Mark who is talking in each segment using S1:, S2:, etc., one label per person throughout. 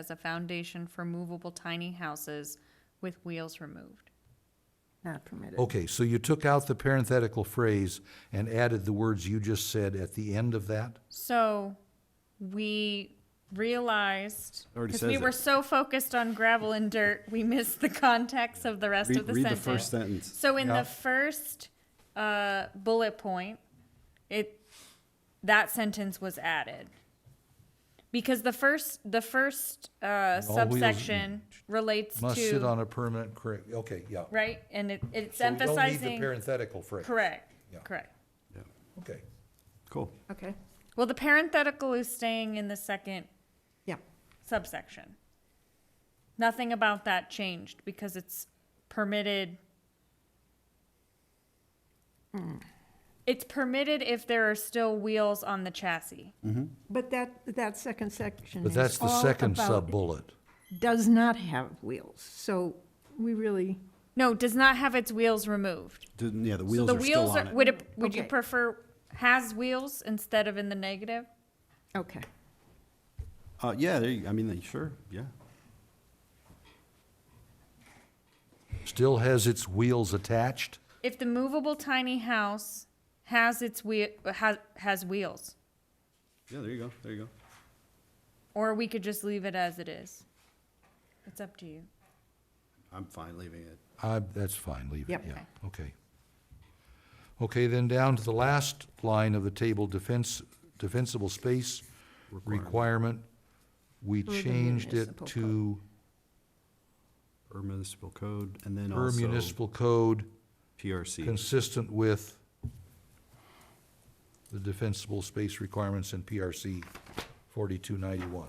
S1: as a foundation for movable tiny houses with wheels removed.
S2: Not permitted.
S3: Okay, so you took out the parenthetical phrase and added the words you just said at the end of that?
S1: So we realized,
S4: Already
S1: because we
S4: says
S1: were
S4: it.
S1: so focused on gravel and dirt, we missed the context of the rest
S4: Read-
S1: of the
S4: read the
S1: sentence.
S4: first sentence.
S1: So in
S3: Yeah.
S1: the first uh, bullet point, it that sentence was added because the first the first uh,
S3: All wheels
S1: subsection relates
S3: Must sit
S1: to
S3: on a permanent, cor- okay, yeah.
S1: right, and it, it's
S3: So we don't need the
S1: emphasizing
S3: Parenthetical phrase.
S1: correct,
S3: Yeah.
S1: correct.
S4: Yeah.
S3: Okay.
S4: Cool.
S2: Okay,
S1: Well, the parenthetical is staying in the second
S2: yeah,
S1: subsection. Nothing about that changed because it's permitted. It's permitted if there are still wheels on the chassis.
S2: but that, that second section
S3: But that's
S2: is
S3: the
S2: all
S3: second
S2: about-
S3: sub-bullet.
S2: Does not have wheels, so we really,
S1: No, does not have its wheels removed.
S4: Didn't- Yeah, the
S1: So
S4: wheels
S1: the
S4: are still
S1: wheels
S4: on
S1: are,
S4: it.
S1: would it, would you
S2: Okay.
S1: prefer has wheels instead of in the negative?
S2: okay.
S4: Uh, yeah, there you, I mean, they- sure, yeah.
S3: Still has its wheels attached?
S1: If the movable tiny house has its wheel, has, has wheels,
S4: Yeah, there you go, there you go.
S1: or we could just leave it as it is. It's up to you.
S4: I'm fine leaving it.
S3: Uh, that's fine, leave it,
S2: Yep.
S3: yeah, okay. Okay, then down to the last line of the table, defense, defensible space requirement. We
S2: the
S3: changed it
S2: municipal
S3: to
S4: Per municipal code, and then
S3: per
S4: also
S3: municipal code
S4: PRC.
S3: consistent with the defensible space requirements in PRC forty-two ninety-one.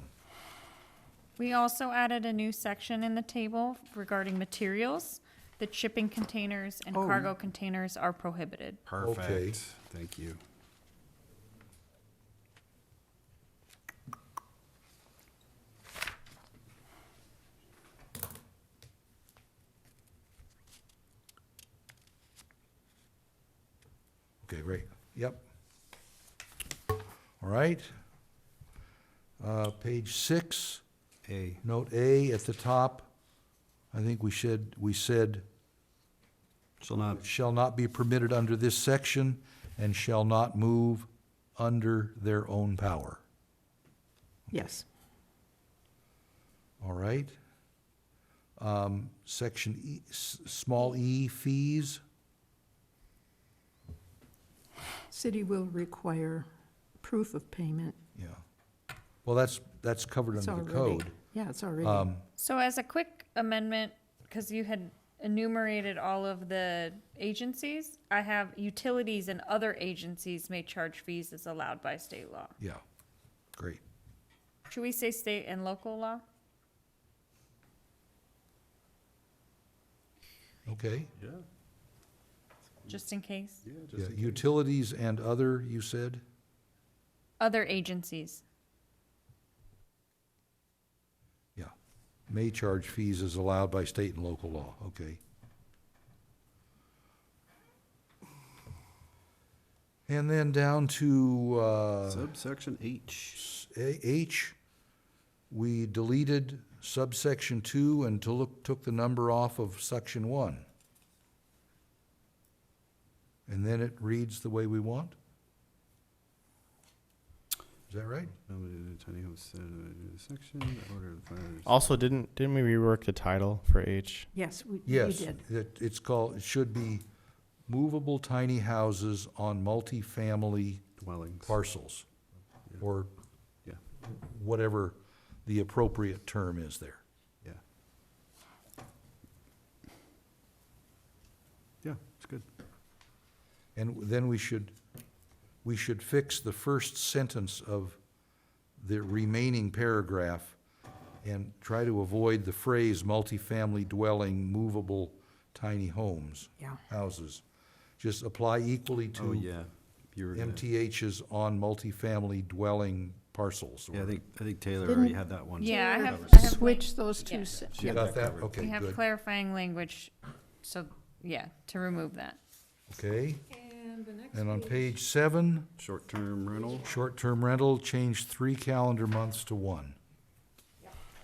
S1: We also added a new section in the table regarding materials. That shipping containers and
S2: Oh.
S1: cargo containers are prohibited.
S3: Okay.
S4: Perfect, thank you.
S3: Okay, right, yep. All right. Uh, page six,
S4: A,
S3: note A at the top, I think we should, we said,
S4: shall not,
S3: shall not be permitted under this section and shall not move under their own power.
S2: Yes,
S3: All right. Um, section E, s- small e fees,
S2: city will require proof of payment.
S3: yeah. Well, that's, that's covered
S2: It's
S3: under the
S2: already-
S3: code. Um,
S2: Yeah, it's already,
S1: So as a quick amendment, because you had enumerated all of the agencies, I have utilities and other agencies may charge fees as allowed by state law.
S3: Yeah, great.
S1: Should we say state and local law?
S3: Okay.
S4: yeah,
S1: Just in case.
S4: yeah,
S3: Yeah,
S4: just,
S3: Utilities and other, you said?
S1: Other agencies.
S3: Yeah. May charge fees as allowed by state and local law, okay. And then down to, uh,
S4: subsection H,
S3: A- H, we deleted subsection two and to look, took the number off of section one. And then it reads the way we want? Is that right?
S4: tiny home center, section, order of planners.
S5: Also, didn't didn't we rework the title for H?
S2: yes, we we
S3: Yes,
S2: did.
S3: it, it's called, it should be movable tiny houses on multifamily
S4: dwellings.
S3: parcels, or
S4: Yeah,
S3: whatever the appropriate term is there.
S4: yeah. Yeah, it's good.
S3: And then we should, we should fix the first sentence of the remaining paragraph and try to avoid the phrase multifamily dwelling movable tiny homes.
S2: Yeah.
S3: Houses. Just apply equally to.
S4: Oh, yeah. You were gonna,
S3: MTHs on multifamily dwelling parcels. or-
S4: yeah, I think, I think Taylor already had that one.
S1: Yeah, I
S2: Taylor
S1: have, I have.
S2: Switch those
S1: Yeah.
S2: two, se-
S4: She
S3: You
S4: had
S3: got that?
S4: covered.
S1: We
S3: Okay,
S1: have
S3: good.
S1: clarifying language, so, yeah, to remove that.
S3: Okay. And on page seven,
S4: Short-term rental,
S3: short-term rental, change three calendar months to one.